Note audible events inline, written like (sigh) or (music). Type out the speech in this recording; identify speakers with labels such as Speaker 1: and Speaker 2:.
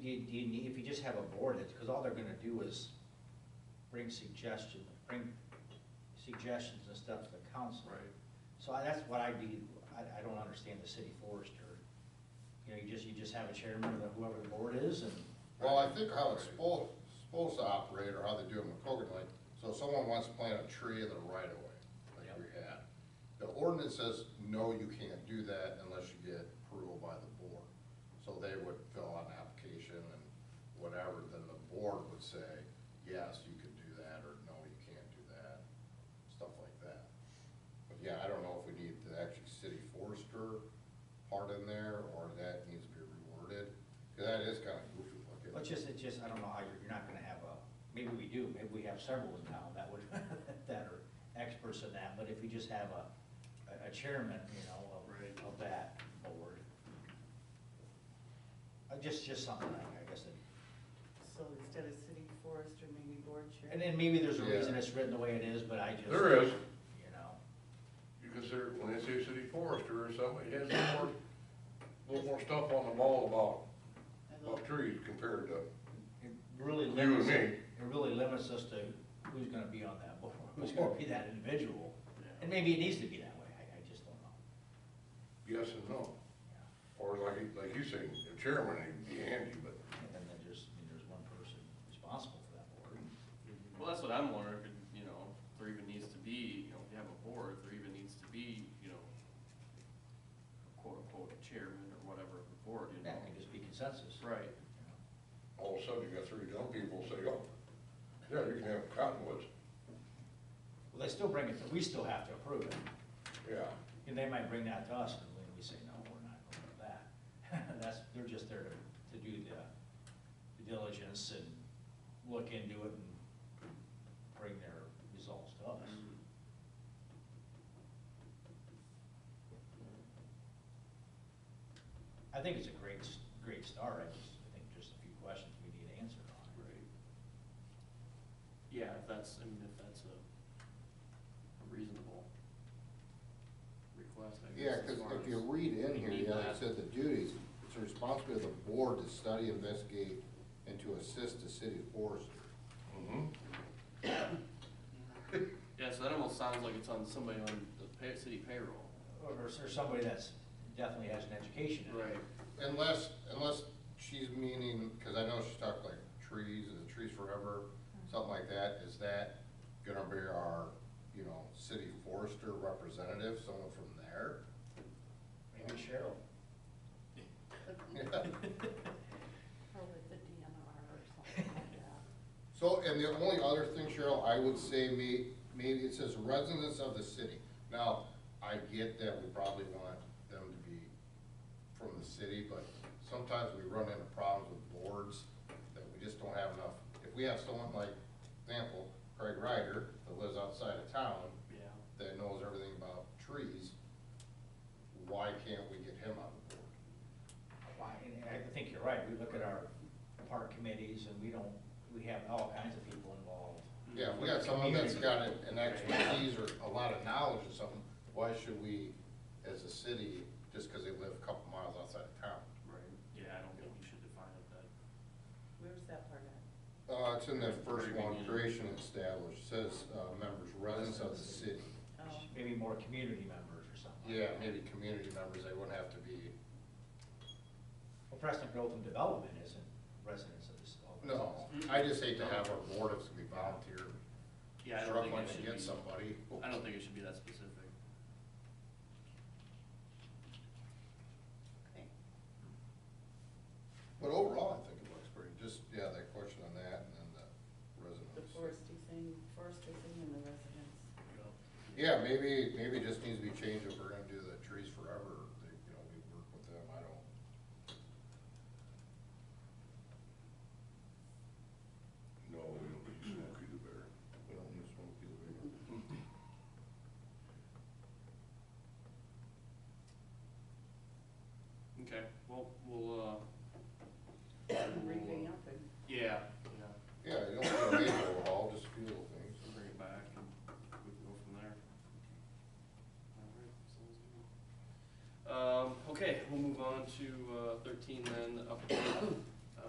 Speaker 1: you, you need, if you just have a board, it's, because all they're gonna do is bring suggestion, bring suggestions and stuff to the council.
Speaker 2: Right.
Speaker 1: So I- that's what I'd be, I, I don't understand the city forester. You know, you just, you just have a chairman of whoever the board is and,
Speaker 3: Well, I think how it's supposed, supposed to operate, or how they do it in McCogan, like, so if someone wants to plant a tree in the right of way, like we had. The ordinance says, no, you can't do that unless you get approval by the board. So they would fill out an application and whatever, then the board would say, yes, you can do that, or no, you can't do that, stuff like that. But yeah, I don't know if we need the actually city forester part in there, or that needs to be reworded, because that is kind of goofy looking.
Speaker 1: but just, it's just, I don't know how you're, you're not gonna have a, maybe we do, maybe we have several now that would, (laughs) that are experts in that, but if you just have a, a chairman, you know,
Speaker 2: Right.
Speaker 1: of, of that board. Uh, just, just something like, I guess, that-
Speaker 4: So instead of city forester, maybe board chair?
Speaker 1: and then maybe there's a
Speaker 3: Yeah.
Speaker 1: reason it's written the way it is, but I just.
Speaker 2: There is.
Speaker 1: You know,
Speaker 2: You consider, when they say city forester or something, it has more, a little more stuff on the wall
Speaker 4: I
Speaker 2: about, about
Speaker 4: love-
Speaker 2: trees compared to,
Speaker 1: it really
Speaker 2: You and
Speaker 1: limits,
Speaker 2: me.
Speaker 1: it really limits us to who's gonna be on that (laughs) board, who's gonna be that individual. And maybe it needs to be that way, I, I just don't know.
Speaker 2: yes and no.
Speaker 1: Yeah.
Speaker 2: Or like, like you say, the chairman, he'd be handy, but
Speaker 1: And then there's, there's one person responsible for that board.
Speaker 5: Well, that's what I'm wondering, if, it, you know, if there even needs to be, you know, if you have a board, if there even needs to be, you know, quote unquote, a chairman or whatever of the board, you know?
Speaker 1: That can just be consensus.
Speaker 5: Right.
Speaker 1: You know.
Speaker 2: all of a sudden you got three dumb people say, oh, yeah, you can have cottonwoods.
Speaker 1: Well, they still bring it, we still have to approve it.
Speaker 2: Yeah,
Speaker 1: And they might bring that to us, and we- we say, no, we're not going with that. (laughs) That's, they're just there to, to do the due diligence and look into it and bring their results to us.
Speaker 5: Mm-hmm.
Speaker 1: I think it's a great, s- great start, I just, I think just a few questions we need answered on.
Speaker 5: Right. Yeah, if that's, I mean, if that's a reasonable request, I guess.
Speaker 3: Yeah,
Speaker 5: as
Speaker 3: because
Speaker 5: far
Speaker 3: if you
Speaker 5: as-
Speaker 3: read in
Speaker 5: we
Speaker 3: here,
Speaker 5: need
Speaker 3: yeah, it
Speaker 5: that.
Speaker 3: said the duties, it's a responsibility of the board to study, investigate, and to assist the city forester.
Speaker 2: mm-hmm.
Speaker 5: Yeah, so that almost sounds like it's on somebody on the pay, city payroll.
Speaker 1: Or is there somebody that's definitely has an education in it?
Speaker 3: Unless, unless she's meaning, because I know she's talked like trees, is it trees forever, something like that, is that gonna be our, you know, city forester representative, someone from there? (laughs)
Speaker 1: Maybe Cheryl.
Speaker 4: Or with the DNR or something like that.
Speaker 3: So, and the only other thing, Cheryl, I would say may, maybe it says residents of the city. Now, I get that we probably want them to be from the city, but sometimes we run into problems with boards that we just don't have enough. If we have someone like, example, Craig Ryder, that lives outside of town,
Speaker 5: Yeah.
Speaker 3: that knows everything about trees, why can't we get him on the board?
Speaker 1: Why, and I think you're right, we look at our park committees and we don't, we have all kinds of people involved.
Speaker 3: Yeah, if we got someone that's got an an expertise or a lot of knowledge or something, why should we, as a city, just because they live a couple miles outside of town?
Speaker 5: Right. Yeah, I don't think we should define it that.
Speaker 4: Where's that part at?
Speaker 3: Uh, it's in the first
Speaker 5: Very
Speaker 3: one,
Speaker 5: beginning.
Speaker 3: creation established, says, uh, members, residents of the city.
Speaker 4: Oh,
Speaker 1: Maybe more community members or something. like
Speaker 3: Yeah,
Speaker 1: that.
Speaker 3: maybe community members, they wouldn't have to be,
Speaker 1: Well, Preston Growth and Development isn't residents of this. all
Speaker 3: no,
Speaker 1: residents.
Speaker 3: I just hate to have our board, it's gonna be volunteer,
Speaker 5: Yeah, I don't
Speaker 3: struggling
Speaker 5: think it
Speaker 3: to
Speaker 5: should
Speaker 3: get
Speaker 5: be.
Speaker 3: somebody.
Speaker 5: I don't think it should be that specific.
Speaker 4: okay.
Speaker 3: But overall, I think it looks pretty, just, yeah, that question on that, and then the residents.
Speaker 4: The foresty thing, forestry thing and the residents.
Speaker 3: Yeah, maybe, maybe it just needs to be changed if we're gonna do the trees forever, they, you know, we work with them, I don't.
Speaker 2: No, we don't need Smokey the Bear.
Speaker 3: We don't need Smokey the
Speaker 5: Okay, well, uh. we'll, uh, Um, uh,